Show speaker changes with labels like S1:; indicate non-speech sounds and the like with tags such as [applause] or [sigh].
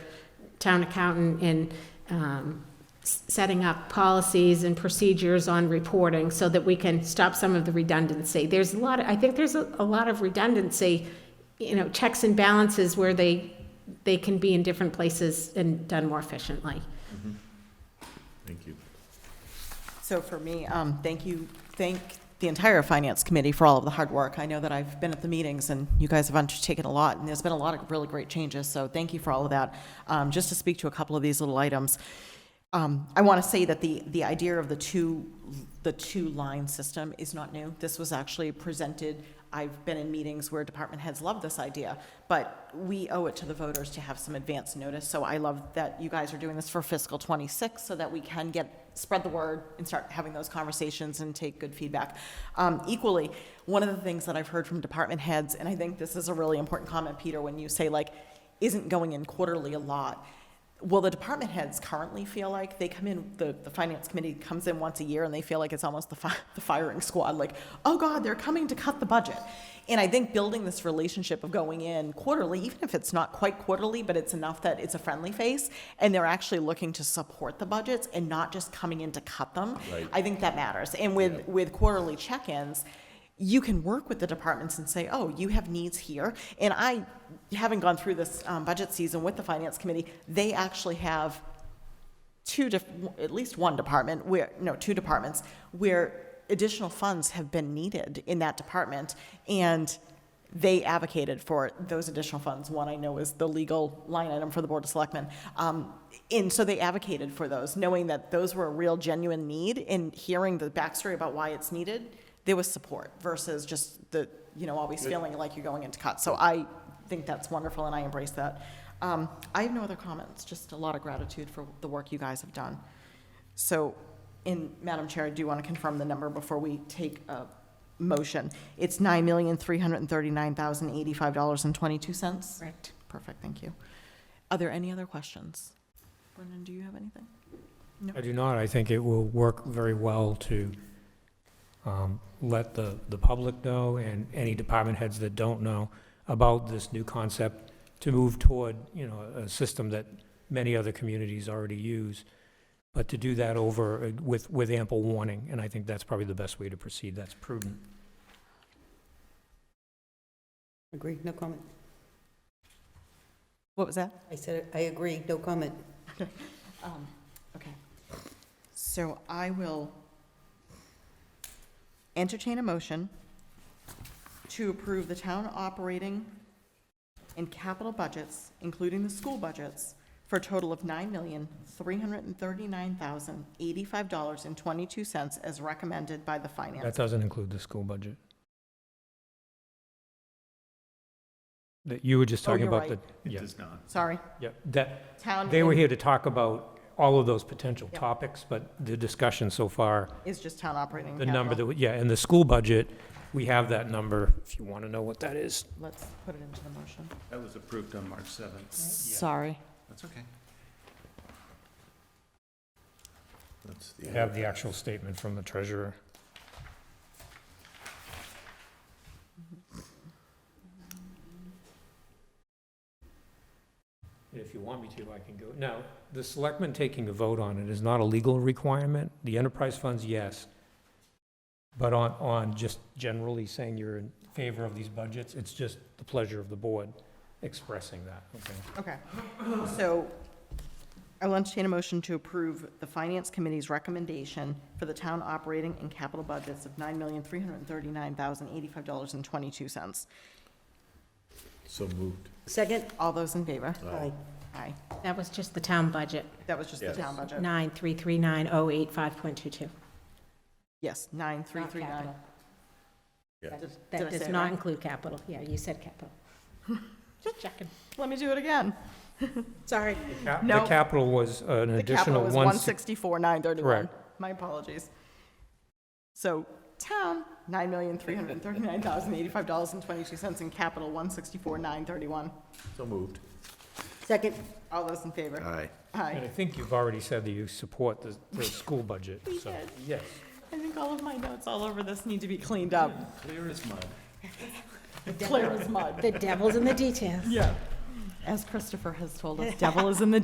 S1: town accountant in um, s- setting up policies and procedures on reporting so that we can stop some of the redundancy. There's a lot, of- I think there's a a lot of redundancy, you know, checks and balances where they, they can be in different places and done more efficiently.
S2: Thank you.
S3: So for me, um, thank you, thank the entire Finance Committee for all of the hard work. I know that I've been at the meetings, and you guys have undertaken a lot, and there's been a lot of really great changes, so thank you for all of that. Um, Just to speak to a couple of these little items, um, I want to say that the, the idea of the two, the two-line system is not new. This was actually presented, I've been in meetings where department heads love this idea, but we owe it to the voters to have some advance notice, so I love that you guys are doing this for fiscal '26, so that we can get, spread the word and start having those conversations and take good feedback. Um, Equally, one of the things that I've heard from department heads, and I think this is a really important comment, Peter, when you say like, isn't going in quarterly a lot? Well, the department heads currently feel like they come in, the, the finance committee comes in once a year and they feel like it's almost the, fi- [laughs] the firing squad, like, oh God, they're coming to cut the budget. And I think building this relationship of going in quarterly, even if it's not quite quarterly, but it's enough that it's a friendly face and they're actually looking to support the budgets and not just coming in to cut them.
S2: Right.
S3: I think that matters. And with,
S2: Yeah.
S3: with quarterly check-ins, you can work with the departments and say, oh, you have needs here. And I, having gone through this um, budget season with the finance committee, they actually have two, diff- at least one department where, no, two departments where additional funds have been needed in that department. And they advocated for those additional funds. One I know is the legal line item for the Board of Selectmen. Um, and so they advocated for those, knowing that those were a real genuine need and hearing the backstory about why it's needed, there was support versus just the, you know, always feeling like you're going into cut. So I think that's wonderful and I embrace that. Um, I have no other comments, just a lot of gratitude for the work you guys have done. So, in, Madam Chair, I do want to confirm the number before we take a motion. It's nine million, three hundred and thirty-nine thousand, eighty-five dollars and twenty-two cents? Correct. Perfect, thank you. Are there any other questions? Brendan, do you have anything?
S4: I do not. I think it will work very well to um, let the, the public know and any department heads that don't know about this new concept to move toward, you know, a system that many other communities already use, but to do that over uh, with, with ample warning. And I think that's probably the best way to proceed. That's prudent.
S5: Agree, no comment.
S3: What was that?
S5: I said, I agree, no comment.
S3: Um, Okay. So I will entertain a motion to approve the town operating and capital budgets, including the school budgets, for a total of nine million, three hundred and thirty-nine thousand, eighty-five dollars and twenty-two cents as recommended by the
S4: That
S3: finance.
S4: doesn't include the school budget. That you were just
S3: Oh,
S4: talking
S3: you're
S4: about the,
S3: right.
S2: It
S4: yeah,
S2: does not.
S3: Sorry,
S4: yeah, that,
S3: town
S4: They were
S3: in-
S4: here to talk about all of those potential
S3: Yep.
S4: topics, but the discussion so far,
S3: is just town operating.
S4: the number that,
S3: capital.
S4: we- yeah, and the school budget, we have that number, if you want to know what that is.
S3: Let's put it into the motion.
S2: That was approved on March 7th.
S3: Sorry.
S2: That's okay. That's
S4: I Have the actual statement from the treasurer. If you want me to, I can go. Now, the selectmen taking a vote on it is not a legal requirement. The enterprise funds, yes. But on, on just generally saying you're in favor of these budgets, it's just the pleasure of the board expressing that, okay?
S3: Okay, so I will entertain a motion to approve the Finance Committee's recommendation for the town operating and capital budgets of nine million, three hundred and thirty-nine thousand, eighty-five dollars and twenty-two cents.
S2: So moved.
S5: Second?
S3: All those in favor?
S5: Aye.
S3: Aye.
S1: That was just the town budget,
S3: That was just the
S2: Yes.
S3: town budget.
S1: nine three three nine oh eight five point two two.
S3: Yes, nine, three, three, nine.
S2: Yeah.
S3: Did- did I
S1: That
S3: say
S1: does
S3: it
S1: not
S3: right?
S1: include capital. Yeah, you said capital. [laughs] Just checking.
S3: Let me do it again. [laughs]
S1: Sorry.
S4: Cap-
S3: No.
S4: The capital was an
S3: The capital
S4: additional
S3: was
S4: one
S3: one
S4: six.
S3: sixty-four, nine thirty-one.
S4: Correct.
S3: My apologies. So town, nine million, three hundred and thirty-nine thousand, eighty-five dollars and twenty-two cents, and capital, one sixty-four, nine thirty-one.
S2: So moved.
S5: Second?
S3: All those in favor?
S2: Aye.
S3: Aye.
S4: And I think you've already said that you support the,
S3: [laughs]
S4: the school budget,
S3: We
S4: so.
S3: did.
S4: Yes.
S3: I think all of my notes all over this need to be cleaned up.
S2: Clear as mud.
S3: Clear as mud.
S1: The devil's in the details.
S3: Yeah. As Christopher has told us, devil is in the